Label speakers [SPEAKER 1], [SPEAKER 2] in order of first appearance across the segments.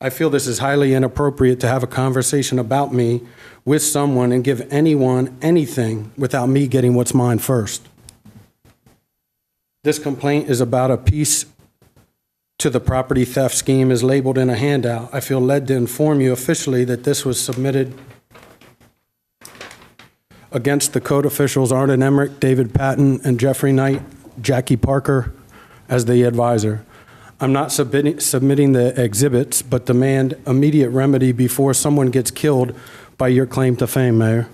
[SPEAKER 1] I feel this is highly inappropriate to have a conversation about me with someone and give anyone anything without me getting what's mine first. This complaint is about a piece to the property theft scheme is labeled in a handout. I feel led to inform you officially that this was submitted against the code officials Arden Emmerich, David Patton, and Jeffrey Knight, Jackie Parker as the advisor. I'm not submitting, submitting the exhibits, but demand immediate remedy before someone gets killed by your claim to fame, Mayor.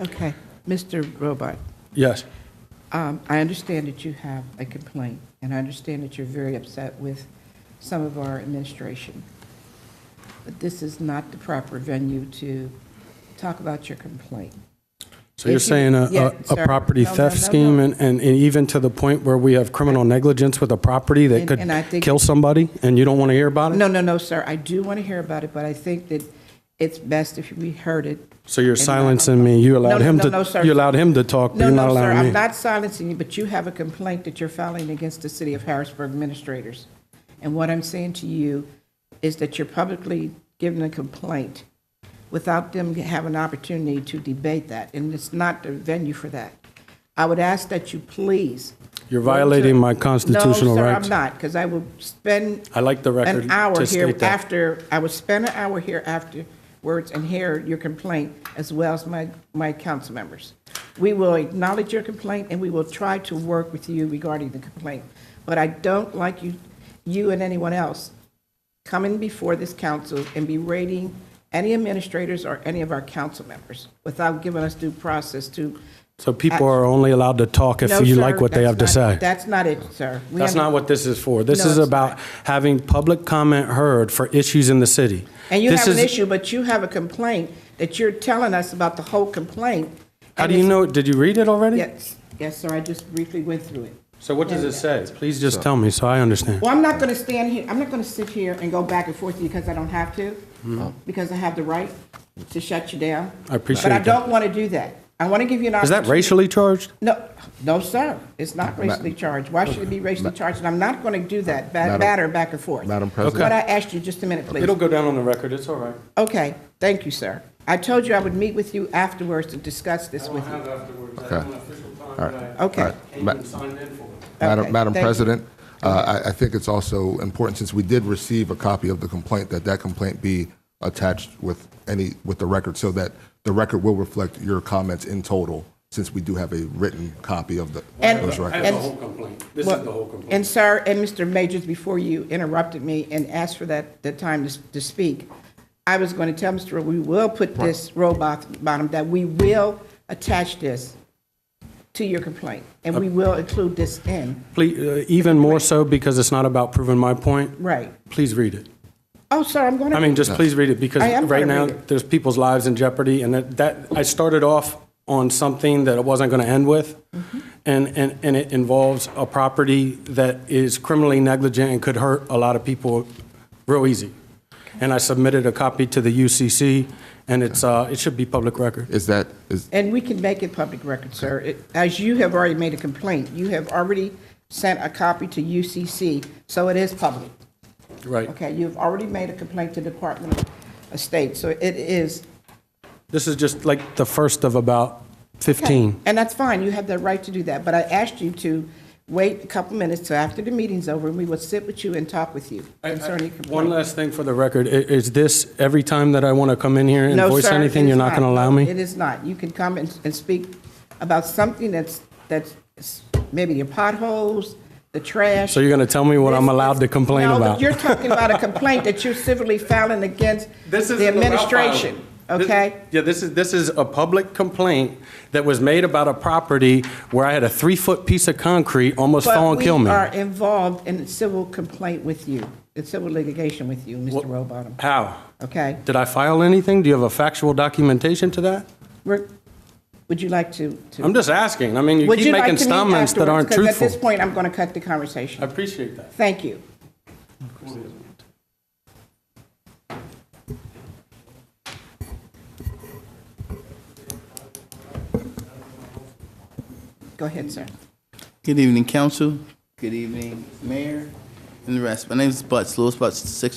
[SPEAKER 2] Okay, Mr. Robart,
[SPEAKER 1] Yes,
[SPEAKER 2] um, I understand that you have a complaint, and I understand that you're very upset with some of our administration. But this is not the proper venue to talk about your complaint.
[SPEAKER 1] so you're
[SPEAKER 2] If you-
[SPEAKER 1] saying a-
[SPEAKER 2] yeah,
[SPEAKER 1] a,
[SPEAKER 2] sir.
[SPEAKER 1] a property
[SPEAKER 2] No, no,
[SPEAKER 1] theft
[SPEAKER 2] no,
[SPEAKER 1] scheme
[SPEAKER 2] no.
[SPEAKER 1] and, and and even to the point where we have criminal negligence with a property that
[SPEAKER 2] And-
[SPEAKER 1] could
[SPEAKER 2] and I think-
[SPEAKER 1] kill somebody and you don't want to hear about it?
[SPEAKER 2] No, no, no, sir, I do want to hear about it, but I think that it's best if we heard it.
[SPEAKER 1] So you're
[SPEAKER 2] and not-
[SPEAKER 1] silencing me. You allowed
[SPEAKER 2] No,
[SPEAKER 1] him
[SPEAKER 2] no,
[SPEAKER 1] to,
[SPEAKER 2] no, sir.
[SPEAKER 1] you allowed him to talk, but
[SPEAKER 2] No,
[SPEAKER 1] you're not
[SPEAKER 2] no, sir,
[SPEAKER 1] allowing
[SPEAKER 2] I'm
[SPEAKER 1] me.
[SPEAKER 2] not silencing you, but you have a complaint that you're filing against the city of Harrisburg administrators. And what I'm saying to you is that you're publicly giving a complaint without them having an opportunity to debate that, and it's not the venue for that. I would ask that you please.
[SPEAKER 1] You're violating my constitutional
[SPEAKER 2] No,
[SPEAKER 1] rights.
[SPEAKER 2] sir, I'm not, because I will spend
[SPEAKER 1] I like the record
[SPEAKER 2] an hour
[SPEAKER 1] to
[SPEAKER 2] here
[SPEAKER 1] state that.
[SPEAKER 2] after, I would spend an hour here afterwards and hear your complaint as well as my, my council members. We will acknowledge your complaint and we will try to work with you regarding the complaint. But I don't like you, you and anyone else coming before this council and berating any administrators or any of our council members without giving us due process to.
[SPEAKER 1] So people are only allowed to talk if
[SPEAKER 2] No,
[SPEAKER 1] you
[SPEAKER 2] sir,
[SPEAKER 1] like what they have to
[SPEAKER 2] that's not-
[SPEAKER 1] say.
[SPEAKER 2] That's not it, sir. We
[SPEAKER 1] That's not
[SPEAKER 2] under-
[SPEAKER 1] what this is for. This
[SPEAKER 2] No,
[SPEAKER 1] is
[SPEAKER 2] it's
[SPEAKER 1] about having public comment heard for issues in the city.
[SPEAKER 2] And you
[SPEAKER 1] This
[SPEAKER 2] have an
[SPEAKER 1] is-
[SPEAKER 2] issue, but you have a complaint that you're telling us about the whole complaint.
[SPEAKER 1] How
[SPEAKER 2] and
[SPEAKER 1] do you
[SPEAKER 2] it's-
[SPEAKER 1] know, did you read it already?
[SPEAKER 2] Yes, yes, sir, I just briefly went through it.
[SPEAKER 1] So what does it say? Please just tell me so I understand.
[SPEAKER 2] Well, I'm not going to stand here, I'm not going to sit here and go back and forth with you because I don't have to, because I have the right to shut you down.
[SPEAKER 1] Mm-hmm. I appreciate
[SPEAKER 2] But I
[SPEAKER 1] that.
[SPEAKER 2] don't want to do that. I want to give you an
[SPEAKER 1] Is
[SPEAKER 2] opportunity.
[SPEAKER 1] that racially charged?
[SPEAKER 2] No, no, sir, it's not racially charged. Why should it be racially charged? And I'm not going to do that, ba-
[SPEAKER 3] Madam-
[SPEAKER 2] batter back and forth.
[SPEAKER 3] Madam
[SPEAKER 2] That's what I asked you, just a minute, please.
[SPEAKER 1] It'll go down on the record. It's all right.
[SPEAKER 2] Okay, thank you, sir. I told you I would meet with you afterwards to discuss this with you.
[SPEAKER 1] afterwards.
[SPEAKER 3] Okay. have an
[SPEAKER 2] Okay. All right.
[SPEAKER 3] And you
[SPEAKER 1] signed in for it.
[SPEAKER 2] Okay,
[SPEAKER 3] Madam, Madam
[SPEAKER 2] thank you.
[SPEAKER 3] President, uh, I, I think it's also important, since we did receive a copy of the complaint, that that complaint be attached with any, with the record, so that the record will reflect your comments in total, since we do have a written copy of the,
[SPEAKER 2] And-
[SPEAKER 3] those records.
[SPEAKER 2] And-
[SPEAKER 1] complaint. This
[SPEAKER 2] Well, And sir, and Mr. Majors, before you interrupted me and asked for that, the time to, s- to speak, I was going to tell Mr. Ro- we will put this robot bottom, that we will attach this to your complaint, and we will include this in,
[SPEAKER 1] Please, uh, even more so because it's not about proving my point.
[SPEAKER 2] right?
[SPEAKER 1] Please read it.
[SPEAKER 2] Oh, sir, I'm going to.
[SPEAKER 1] I mean, just please read it because
[SPEAKER 2] I am
[SPEAKER 1] right
[SPEAKER 2] gonna
[SPEAKER 1] now,
[SPEAKER 2] read it.
[SPEAKER 1] there's people's lives in jeopardy. And that- that, I started off on something that I wasn't going to end with.
[SPEAKER 2] Mm-hmm.
[SPEAKER 1] And, and, and it involves a property that is criminally negligent and could hurt a lot of people real easy. And I submitted a copy to the UCC and it's, uh, it should be public record.
[SPEAKER 3] Is that, is,
[SPEAKER 2] And we can make it public record, sir. It- As you have already made a complaint, you have already sent a copy to UCC, so it is public.
[SPEAKER 1] Right.
[SPEAKER 2] Okay, you've already made a complaint to Department of State, so it is.
[SPEAKER 1] This is just like the first of about 15.
[SPEAKER 2] And that's fine, you have the right to do that, but I asked you to wait a couple minutes till after the meeting's over, and we will sit with you and talk with you
[SPEAKER 1] I- I-
[SPEAKER 2] concerning your
[SPEAKER 1] One
[SPEAKER 2] complaint.
[SPEAKER 1] last thing for the record. I- Is this every time that I want to come in here and
[SPEAKER 2] No,
[SPEAKER 1] voice
[SPEAKER 2] sir,
[SPEAKER 1] anything,
[SPEAKER 2] it
[SPEAKER 1] you're
[SPEAKER 2] is
[SPEAKER 1] not going to allow
[SPEAKER 2] It
[SPEAKER 1] me?
[SPEAKER 2] is not. You can come and, and speak about something that's, that's maybe your potholes, the trash.
[SPEAKER 1] So you're going to tell me what I'm allowed to complain
[SPEAKER 2] No, but
[SPEAKER 1] about?
[SPEAKER 2] you're talking about a complaint that you're civilly filing against the administration, okay?
[SPEAKER 1] Yeah, this is, this is a public complaint that was made about a property where I had a three-foot piece of concrete almost fall and kill me.
[SPEAKER 2] But we are involved in civil complaint with you, in civil litigation with you, Mr. Rowbottom,
[SPEAKER 1] How?
[SPEAKER 2] okay?
[SPEAKER 1] Did I file anything? Do you have a factual documentation to that?
[SPEAKER 2] Rick, Would you like to? to-
[SPEAKER 1] I'm just asking. I mean, you
[SPEAKER 2] Would
[SPEAKER 1] keep
[SPEAKER 2] you like
[SPEAKER 1] making
[SPEAKER 2] to meet
[SPEAKER 1] statements that
[SPEAKER 2] afterwards?
[SPEAKER 1] aren't
[SPEAKER 2] 'Cause at this
[SPEAKER 1] truthful.
[SPEAKER 2] point, I'm going to cut the
[SPEAKER 1] I
[SPEAKER 2] conversation.
[SPEAKER 1] appreciate that.
[SPEAKER 2] Thank you. Go ahead, sir.
[SPEAKER 4] Good evening, council. Good evening, mayor, and the rest. My name is Butts, Louis Butts, six